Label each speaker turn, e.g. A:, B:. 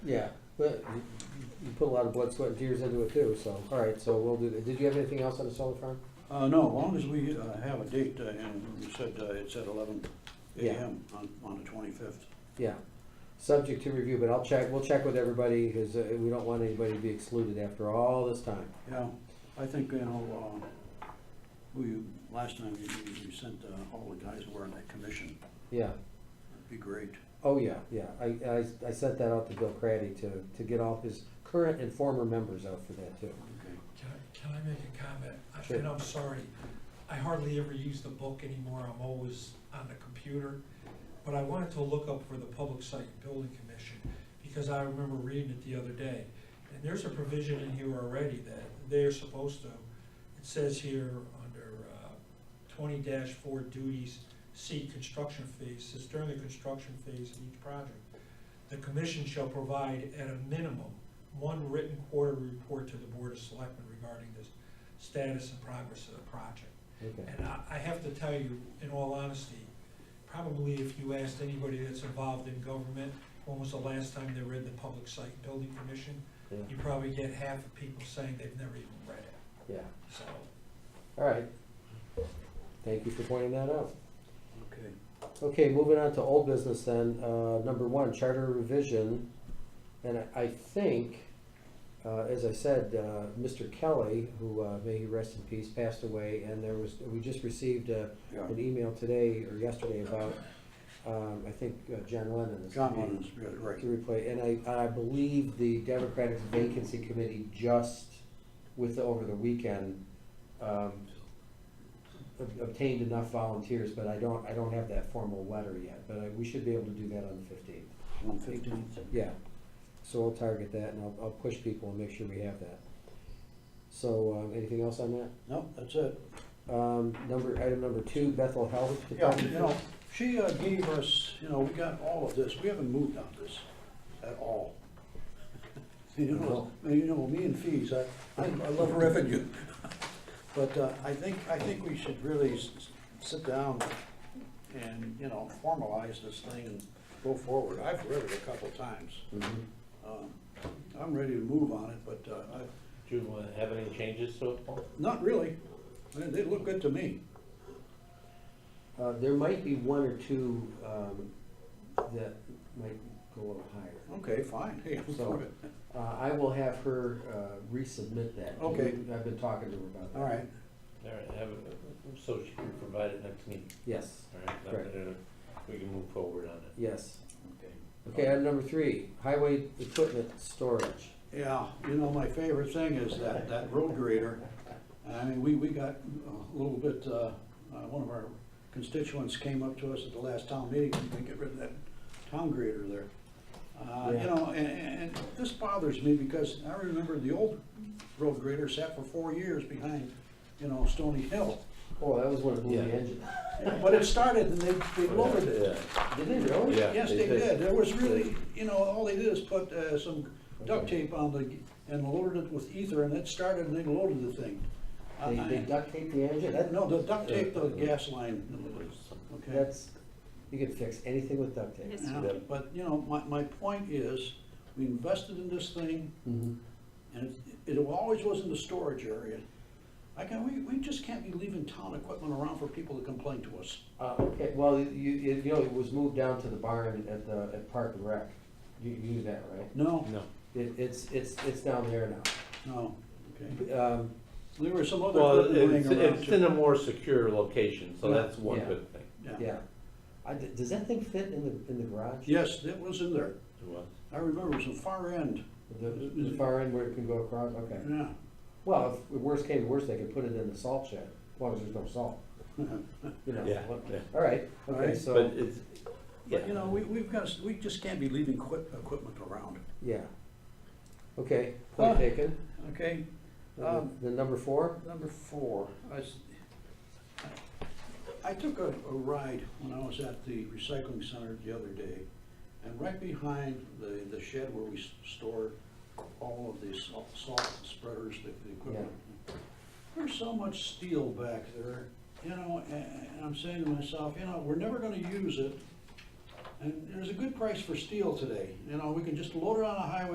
A: Yeah, but you- you put a lot of blood, sweat, and tears into it too, so, all right, so we'll do that. Did you have anything else on the solar farm?
B: Uh, no, as long as we uh, have a date, uh, and you said uh, it's at eleven
A: Yeah.
B: AM on, on the twenty-fifth.
A: Yeah, subject to review, but I'll check, we'll check with everybody, because we don't want anybody to be excluded after all this time.
B: Yeah, I think, you know, uh, we, last time you, you- you sent uh, all the guys who were on that commission,
A: Yeah,
B: that'd be great.
A: oh yeah, yeah, I, I, I sent that out to Bill Craddy to, to get all his current and former members out for that too.
B: Okay.
C: Can I, can I make a comment? I-
A: Sure.
C: And I'm sorry, I hardly ever use the book anymore, I'm always on the computer. But I wanted to look up for the Public Site and Building Commission, because I remember reading it the other day. And there's a provision in here already that they're supposed to, it says here under uh, twenty four duties, C, construction phase, says during the construction phase of each project, the commission shall provide at a minimum one written quarterly report to the Board of Selectmen regarding the status and progress of the project.
A: Okay,
C: And I, I have to tell you, in all honesty, probably if you asked anybody that's involved in government, when was the last time they read the Public Site Building Commission,
A: yeah,
C: you probably get half of people saying they've never even read it,
A: yeah,
C: so.
A: all right. Thank you for pointing that out.
B: Okay.
A: Okay, moving on to old business then, uh, number one, charter revision. And I- I think, uh, as I said, uh, Mr. Kelly, who, uh, may he rest in peace, passed away. And there was, we just received, uh,
B: Yeah,
A: an email today or yesterday about, um, I think uh, John Lennon is.
B: John Lennon's, yeah, right.
A: To replace, and I, I believe the Democratic Vacancy Committee just with, over the weekend, um, ob- obtained enough volunteers, but I don't, I don't have that formal letter yet, but I, we should be able to do that on the fifteenth.
B: One fifteenth.
A: Yeah, so I'll target that and I'll, I'll push people and make sure we have that. So, uh, anything else on that?
B: No, that's it.
A: Um, number, item number two, Bethel Health
B: Yeah,
A: Department.
B: you know, she uh, gave us, you know, we got all of this, we haven't moved on this at all. You know, you know, me and fees, I, I I love revenue. But uh, I think, I think we should really s- s- sit down and, you know, formalize this thing and go forward. I've read it a couple times.
A: Mhm.
B: Um, I'm ready to move on it, but uh, I,
D: Do you uh, have any changes to it, Paul?
B: not really. They, they look good to me.
A: Uh, there might be one or two, um, that might go a little higher.
B: Okay, fine. Hey, I'm for it.
A: Uh, I will have her, uh, resubmit that.
B: Okay.
A: I've been talking to her about that.
B: All right.
D: All right, have, it- so she can provide it next meeting,
A: Yes,
D: all right? That-
A: Correct.
D: uh, We can move forward on it.
A: yes.
B: Okay.
A: Okay, item number three, highway equipment storage.
B: Yeah, you know, my favorite thing is that, that road grader. I mean, we, we got a little bit, uh, uh, one of our constituents came up to us at the last town meeting, we can get rid of that town grader there. Uh, you
A: Yeah.
B: know, and, and and this bothers me because I remember the old road grader sat for four years behind, you know, Stony Hill.
A: Oh, that was when it moved the
D: Yeah.
A: engine.
B: But it started and they, they lowered it.
A: Did they really?
D: Yeah.
B: Yes,
D: they
B: they
D: did.
B: did. There was really, you know, all they did is put uh, some duct
A: Okay.
B: tape on the, and loaded it with ether, and it started, and they loaded the thing.
A: They,
B: I-
A: they duct taped the engine? That-
B: No, the duct tape, the gas line, okay?
A: That's, you can fix anything with duct tape.
E: Yes.
B: Yeah, But, you know, my, my point is, we invested in this thing,
A: Mhm.
B: and it it always was in the storage area. I can, we, we just can't be leaving town equipment around for people to complain to us.
A: Uh, okay, well, you, you you know, it was moved down to the barn at the, at Park and Rec. You, you knew that, right?
B: No,
D: No.
A: It, it's, it's, it's down there now.
B: no, okay.
A: Um,
B: There were some other
D: Well,
B: equipment
D: it's,
B: laying around.
D: it's
B: too.
D: in a more secure location, so
B: Yeah.
D: that's one
A: Yeah.
D: good thing.
A: yeah. I, d- does that thing fit in the, in the garage?
B: Yes, it was in there.
D: It was.
B: I remember it was the far end,
A: The, the far end where it can go across, okay.
B: yeah.
A: Well, if worst came to worst, they could put it in the salt shed, as long as there's no salt, you know.
D: Yeah, yeah.
A: All right,
B: All
A: okay,
B: right.
D: But
A: so,
D: it's,
B: But, you know,
D: yeah,
B: we, we've got, we just can't be leaving equip, equipment around,
A: yeah. Okay, point
B: Uh,
A: taken.
B: okay?
A: Uh,
B: um,
A: The number four?
B: Number four, I, s- I took a, a ride when I was at the recycling center the other day, and right behind the, the shed where we s- store all of the salt, salt spreaders, the, the equipment. There's so much steel back there, you know, and, and I'm saying to myself, you know, we're never gonna use it. And there's a good price for steel today, you know, we can just load it on a highway